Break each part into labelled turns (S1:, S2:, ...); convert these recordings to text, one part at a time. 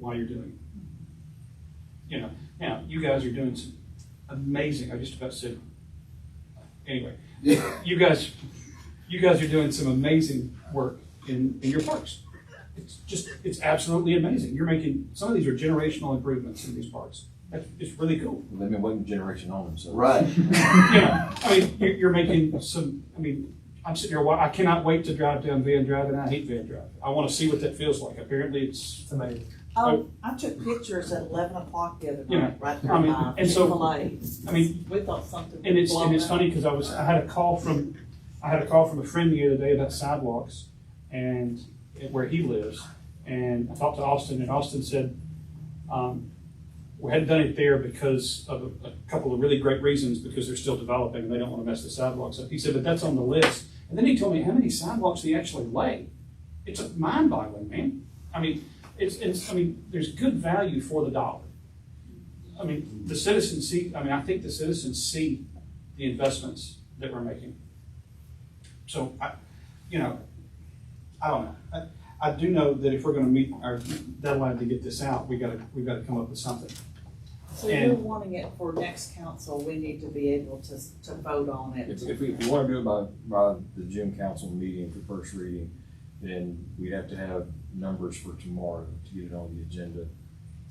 S1: while you're doing it. You know, now, you guys are doing some amazing, I just about said, anyway. You guys, you guys are doing some amazing work in, in your parks. It's just, it's absolutely amazing. You're making, some of these are generational improvements in these parks. That's, it's really cool.
S2: They've been waiting generation on them, so.
S3: Right.
S1: you know, I mean, you're, you're making some, I mean, I'm sitting here, wa- I cannot wait to drive down Van Drive, and I hate Van Drive. I wanna see what that feels like. Apparently, it's,
S4: It's amazing.
S5: Oh, I took pictures at eleven o'clock the other
S1: Yeah.
S5: night, right there
S1: I mean,
S5: by
S1: and so-
S5: Chick-fil-A.
S1: I mean,
S5: We thought something.
S1: and it's, and it's
S5: was blown up.
S1: funny, cause I was, I had a call from, I had a call from a friend the other day about sidewalks and where he lives. And I talked to Austin, and Austin said, um, we hadn't done it there because of a, a couple of really great reasons, because they're still developing, and they don't wanna mess the sidewalks up. He said, but that's on the list. And then he told me how many sidewalks they actually lay. It's mind boggling, man. I mean, it's, it's, I mean, there's good value for the dollar. I mean, the citizens see, I mean, I think the citizens see the investments that we're making. So I, you know, I don't know. I, I do know that if we're gonna meet our deadline to get this out, we gotta, we gotta come up with something.
S5: So you're
S1: and-
S5: wanting it for next council, we need to be able to, to vote on
S2: If,
S5: it.
S2: if we, if we wanna do it by, by the June council meeting for first reading, then we'd have to have numbers for tomorrow to get it on the agenda.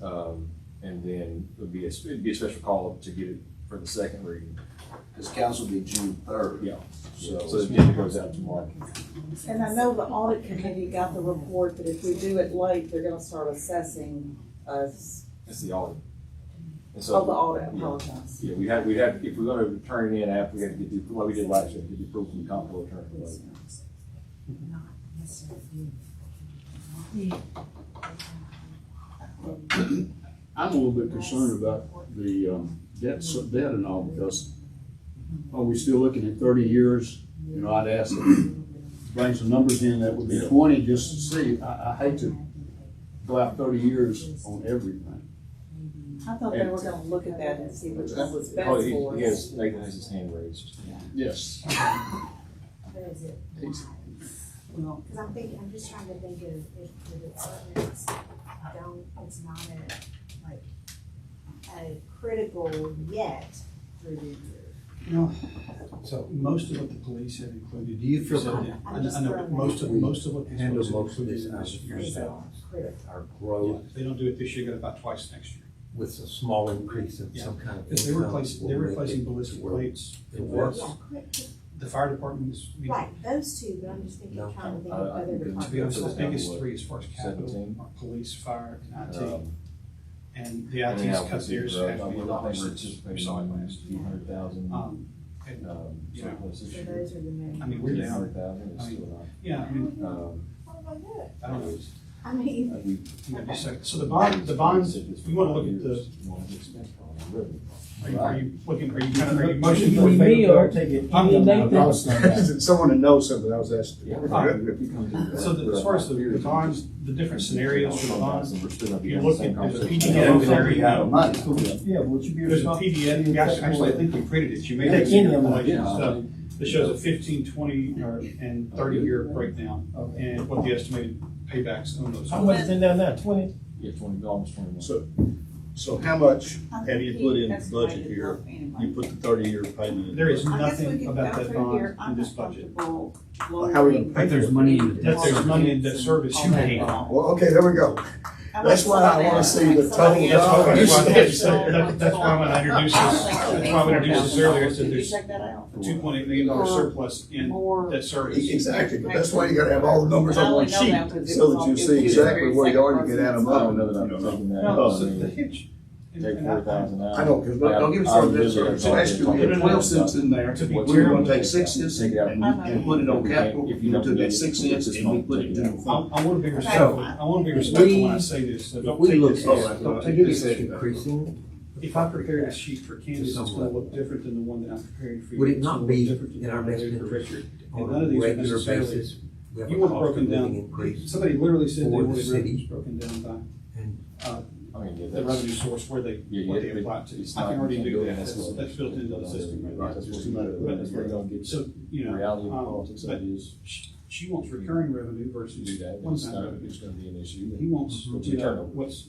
S2: Um, and then it'd be a, sp- it'd be a special call up to get it for the second reading,
S3: This council will be June third.
S2: Yeah. so, so the agenda goes out tomorrow.
S5: And I know the audit committee got the report that if we do it late, they're gonna start assessing us,
S2: That's the audit. And so-
S5: oh, the audit, I
S2: Yeah.
S5: apologize.
S2: Yeah, we had, we had, if we're gonna turn it in after, we had to get the, like we did last year, get the approval from comptroller attorney. like,
S6: I'm a little bit concerned about the um, debt, so- debt and all, because are we still looking at thirty years? You know, I'd ask, them to bring some numbers in that would be twenty, just to see. I, I hate to go out thirty years on everything.
S5: I thought they were gonna look at that and see which one was best
S2: Oh, he,
S5: for
S2: he
S5: us.
S2: has, Nathan has his hand raised.
S6: Yes.
S1: Well,
S7: Cause I'm thinking, I'm just trying to think of if the departments don't, it's not a, like, a critical yet review.
S8: So most of what the police have included. Do you feel
S7: that-
S8: I know, I know, most of, most of what.
S4: Handle most of
S8: this
S4: this out Oh. of
S7: It's
S4: yourself.
S7: a critical.
S4: Our growth
S1: if they don't do it this year, you got about twice next year.
S4: with a small increase of some kind of.
S8: Because they're
S4: income
S8: replacing, they're
S4: will make
S8: replacing
S4: it
S8: ballistic
S4: work.
S8: plates.
S4: It works.
S7: Yeah, crit-
S8: The fire department's, I mean,
S7: Right, those two, but I'm just thinking,
S4: No,
S7: trying to think
S2: I-
S7: of
S2: I
S7: other
S2: think it's-
S8: to be honest, the
S7: departments.
S8: biggest three as far as capital
S2: Seventeen.
S8: are police, fire, and
S4: Uh,
S8: IT.
S2: Um,
S8: And the
S2: and
S8: IT's
S2: now
S8: cut
S2: with the
S8: theirs
S2: growth, I mean, I
S8: half a million
S2: think
S8: dollars
S2: we're
S8: since we
S2: anticipating
S8: saw it last.
S2: a few hundred thousand, um,
S8: Um, and, yeah.
S2: surplus this
S7: So
S2: year.
S7: those are the main.
S8: I mean, we're
S2: Three
S8: down,
S2: hundred thousand is still
S8: yeah, I mean,
S2: not, um,
S7: What am I doing?
S8: I don't know,
S7: I mean,
S2: uh, we.
S8: you know, just a second. So the bond, the bonds, you wanna look at the, are you, are you looking, are you kind of, are you motioning for
S9: We
S8: favor?
S9: may or take it.
S8: I'm-
S9: Yeah, no, no.
S6: Someone that knows something, I was asking.
S8: So the- as far as the the bonds, the different scenarios for the bonds, you look at- there's a
S3: You
S8: PTO
S3: don't think we
S8: scenario.
S3: have money.
S9: Yeah, would you be?
S8: There's a PDF, you actually, actually, I think we printed it, you may have
S9: Take
S8: seen
S9: any
S8: the
S9: of them,
S8: collection
S2: yeah.
S8: stuff, that shows a fifteen, twenty, or, and thirty-year breakdown,
S9: Okay.
S8: and what the estimated paybacks on those.
S9: How
S8: are.
S9: much is in there now, twenty?
S2: Yeah, twenty, almost twenty-one.
S6: So- So how much have you put in the
S5: That's why I
S6: budget
S5: didn't
S6: here?
S5: vote anyway.
S6: You put the thirty-year payment in.
S8: There
S5: I
S8: is
S5: guess we
S8: nothing
S5: can
S8: about
S5: go
S8: that
S5: through here.
S8: bond
S5: I'm
S8: in this
S5: not
S8: budget.
S5: comfortable
S6: How are we gonna
S5: lowering-
S6: pay
S4: If there's money in
S8: That there's money in debt service you pay.
S5: Well,
S6: Well, okay, there we go. That's why I wanna see the total
S8: That's why, that's why,
S6: Yeah.
S8: that's why when I introduced this, that's why when I introduced this earlier, I said there's
S5: Check that out.
S8: a two point eight million dollar surplus in
S5: More.
S8: debt service.
S6: Exactly, but that's why you gotta have all the numbers on one
S5: I only
S6: sheet,
S5: know that 'cause it
S6: so
S5: was
S6: that you
S5: on- it
S6: see
S5: was
S6: exactly where you are, you
S5: very
S6: can add them up.
S2: I don't know that I'm taking that.
S8: No,
S2: I
S8: so
S2: mean,
S8: the hitch. and-
S2: Oh, Take
S8: and I-
S2: four thousand out.
S6: I know, because don't get
S2: I-
S6: me started,
S2: I
S6: that's
S2: really
S6: right. So last year we had
S2: don't-
S6: twelve cents in there,
S8: To
S6: we
S8: be
S6: were
S8: clear,
S6: gonna take six cents
S2: Take
S6: and,
S2: it out.
S6: and put it on capital,
S2: If you don't
S6: we took
S2: do
S6: that
S2: it,
S6: six
S2: it's
S6: cents
S2: just
S6: and we
S2: not
S6: put it
S2: taken
S6: in
S2: out.
S6: the
S8: I,
S6: fund.
S8: I wanna be respectful, I wanna be respectful when I say this, so don't
S4: We
S8: take
S4: look
S8: this. as-
S4: at,
S8: don't
S4: don't
S8: take
S4: take
S8: this
S4: this
S8: as-
S4: increasing,
S8: If I prepare this sheet for Candace, it's gonna
S4: Somewhat.
S8: look different than the one that I'm preparing for you.
S4: would it
S8: It's gonna
S4: not
S8: look
S4: be
S8: different than
S4: in our
S8: the one
S4: best
S8: I did for
S4: interest
S8: Richard. And
S4: on
S8: none
S4: a
S8: of these are
S4: regular
S8: necessarily-
S4: basis? We have a
S8: You want
S4: cost of
S8: broken down-
S4: living increase.
S8: Somebody literally said they
S4: For the
S8: wanted
S4: city.
S8: revenues broken down
S4: And-
S8: by, uh,
S2: I mean, yeah,
S8: the
S2: that's.
S8: revenue source where they,
S2: Yeah,
S8: what
S2: yeah,
S8: they
S2: but
S8: apply to.
S2: it's
S8: I
S2: not-
S8: can already
S2: you can't
S8: do
S2: go
S8: that,
S2: there.
S8: that's, that's built into the system
S2: Right,
S8: right now.
S2: that's what you gotta- that's where you're gonna get
S8: So, you
S2: the
S8: know,
S2: reality of
S8: um,
S2: politics
S8: but
S2: that is,
S8: she, she wants recurring revenue
S2: to
S8: versus
S2: do that,
S8: one
S2: it's
S8: time
S2: not,
S8: revenue.
S2: it's gonna be an issue.
S8: He wants,
S2: Mhm.
S8: you know,
S2: Return.
S8: what's